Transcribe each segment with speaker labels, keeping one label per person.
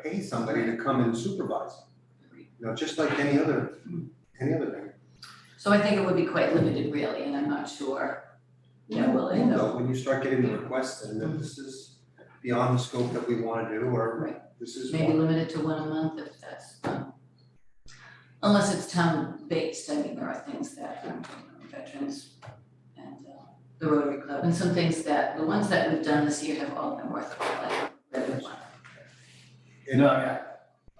Speaker 1: pay somebody to come and supervise. You know, just like any other, any other thing.
Speaker 2: So I think it would be quite limited really, and I'm not sure, you know, will it
Speaker 1: You
Speaker 2: though?
Speaker 1: know, when you start getting the requests and then this is beyond the scope that we wanna do, or
Speaker 2: Right.
Speaker 1: this is
Speaker 2: Maybe
Speaker 1: one.
Speaker 2: limited to one a month if that's, um, unless it's town based, I mean, there are things that, um, you know, veterans and uh, the Rotary Club, and some things that, the ones that we've done this year have all been worthwhile, like Redwood one.
Speaker 3: You know, I,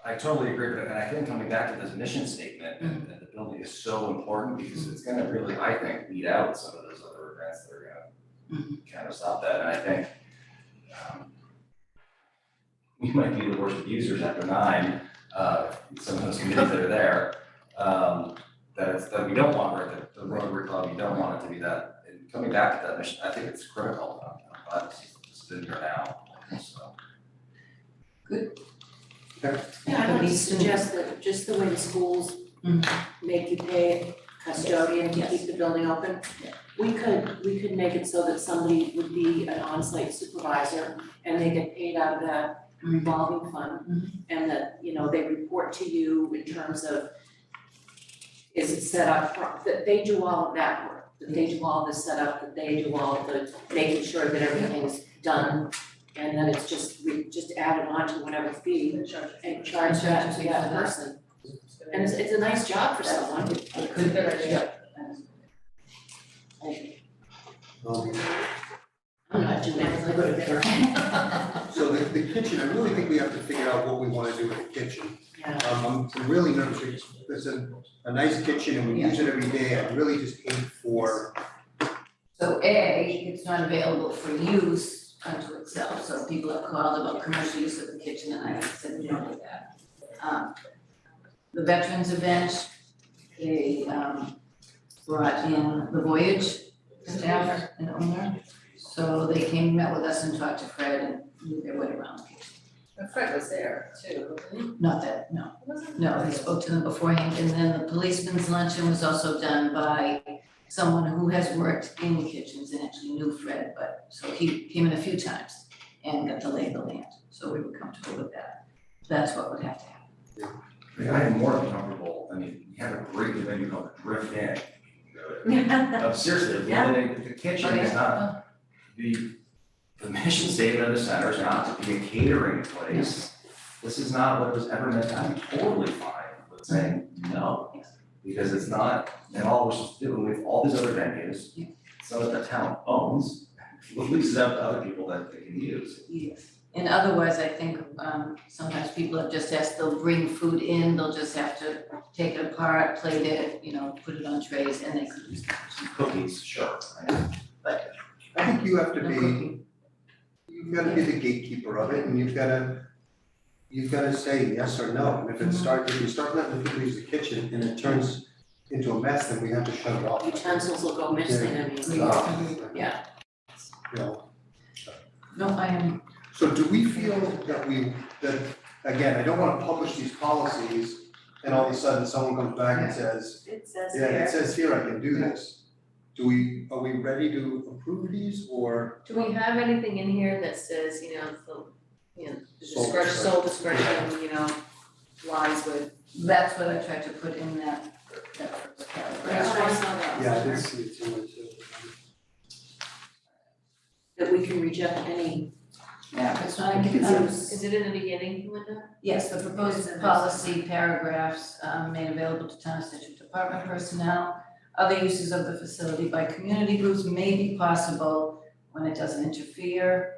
Speaker 3: I totally agree, but and I think coming back to this mission statement and and the building is so important because it's gonna really, I think, weed out some of those other events that are gonna kind of stop that, and I think um, we might be the worst abusers after nine, uh, some of those committees that are there, um, that it's, that we don't want, right, the, the Rotary Club, you don't want it to be that, and coming back to that mission, I think it's critical, I'm I'm glad this is, this has been here now, so.
Speaker 4: Yeah, I
Speaker 2: Could
Speaker 4: would
Speaker 2: be
Speaker 4: suggest that just the way the schools
Speaker 2: Mhm.
Speaker 4: make you pay custodian to
Speaker 2: Yes.
Speaker 4: keep the building open.
Speaker 2: Yeah.
Speaker 4: We could, we could make it so that somebody would be an on-site supervisor and they get paid out of that revolving
Speaker 2: Mhm.
Speaker 4: fund. And that, you know, they report to you in terms of is it set up, pro- that they do all of that work, that they do all the setup, that they do all the making sure that everything's done. And then it's just, we just added on to whatever fee and charge that to that person. And it's, it's a nice job for someone.
Speaker 2: It could be, yeah.
Speaker 1: Um,
Speaker 4: I'm not doing that, I go to bed early.
Speaker 1: So the, the kitchen, I really think we have to figure out what we wanna do with the kitchen.
Speaker 4: Yeah.
Speaker 1: Um, I'm- I'm really nervous, it's, it's a, a nice kitchen and we use it every day, I really just aim for,
Speaker 2: So A, it's not available for use unto itself, so people have called about commercial use of the kitchen and I have said no to that. Um, The veterans event, they um brought in the Voyage staff and owner. So they came, met with us and talked to Fred and knew their way around the kitchen.
Speaker 5: Fred was there too, wasn't
Speaker 2: Not that, no,
Speaker 5: he? Wasn't he?
Speaker 2: no, I spoke to them beforehand, and then the policeman's luncheon was also done by someone who has worked in kitchens and actually knew Fred, but, so he came in a few times and got to lay of the land, so we were comfortable with that. That's what would have to happen.
Speaker 3: Like, I am more comfortable, I mean, you have a great venue called Drift In. Uh, Seriously,
Speaker 4: Yeah.
Speaker 3: the the kitchen is not, the, the mission statement of the center is not to be a catering place. This is not what it was ever meant, to- I'm totally fine with saying no.
Speaker 2: Yes.
Speaker 3: Because it's not, and all we're supposed to do, with all these other venues,
Speaker 2: Yeah.
Speaker 3: some that the town owns, leases out to other people that they can use.
Speaker 2: Yes, and otherwise, I think, um, sometimes people have just asked, they'll bring food in, they'll just have to take it apart, plate it, you know, put it on trays, and they could use the kitchen.
Speaker 3: Cookies, sure, I
Speaker 1: I think you have to
Speaker 2: No
Speaker 1: be,
Speaker 2: cooking.
Speaker 1: you've gotta be the gatekeeper of it and you've gotta, you've gotta say yes or no, and if it starts, if you start letting people use the kitchen and it turns into a mess, then we have to shut it off.
Speaker 4: Utensils will go missing, I mean.
Speaker 1: Uh,
Speaker 4: Yeah.
Speaker 1: You know,
Speaker 2: No, I am,
Speaker 1: So do we feel that we, that, again, I don't wanna publish these policies and all of a sudden someone comes back and says,
Speaker 5: It says
Speaker 1: yeah, it
Speaker 5: there.
Speaker 1: says here I can do this. Do we, are we ready to approve these or,
Speaker 5: Do we have anything in here that says, you know, the, you know, the
Speaker 1: Sole
Speaker 5: discretion, sole discretion, you know, lies with.
Speaker 2: that's what I tried to put in that, that first paragraph.
Speaker 4: That's what I saw that.
Speaker 1: yeah, I did see it too, so.
Speaker 4: That we can reject any,
Speaker 2: Yeah, if it's not a
Speaker 1: It's
Speaker 2: um,
Speaker 5: Is it in the beginning, Linda?
Speaker 2: yes, the proposed policy paragraphs um, made available to town district department personnel. Other uses of the facility by community groups may be possible when it doesn't interfere.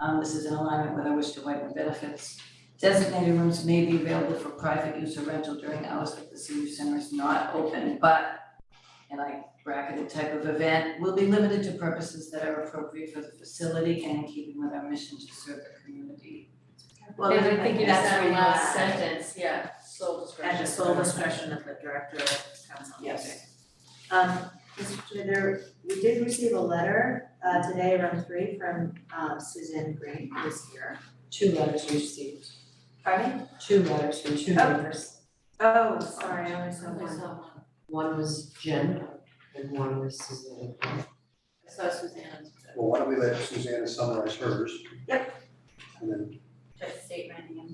Speaker 2: Um, this is in alignment with our wish to widen benefits. Designated rooms may be available for private use or rental during hours that the senior center is not open, but and I bracketed type of event will be limited to purposes that are appropriate for the facility and in keeping with our mission to serve the community.
Speaker 6: Well,
Speaker 5: And I think you just
Speaker 6: that's
Speaker 5: said
Speaker 6: where you
Speaker 5: last
Speaker 6: add-
Speaker 5: sentence, yeah, sole discretion.
Speaker 6: At the sole discretion of the director of council.
Speaker 4: yes.
Speaker 6: Um, Mr. Chair, there, we did receive a letter, uh, today around three from, um, Suzanne Green, who is here.
Speaker 7: Two letters we received,
Speaker 6: Pardon?
Speaker 7: two letters from two
Speaker 6: Oh.
Speaker 7: neighbors.
Speaker 6: Oh, sorry, I only saw one.
Speaker 7: One was Jen and one was Suzanne.
Speaker 5: I saw Suzanne's.
Speaker 1: Well, why don't we let Susanna summarize hers?
Speaker 6: Yep.
Speaker 1: And then,
Speaker 6: uh, Just state my name.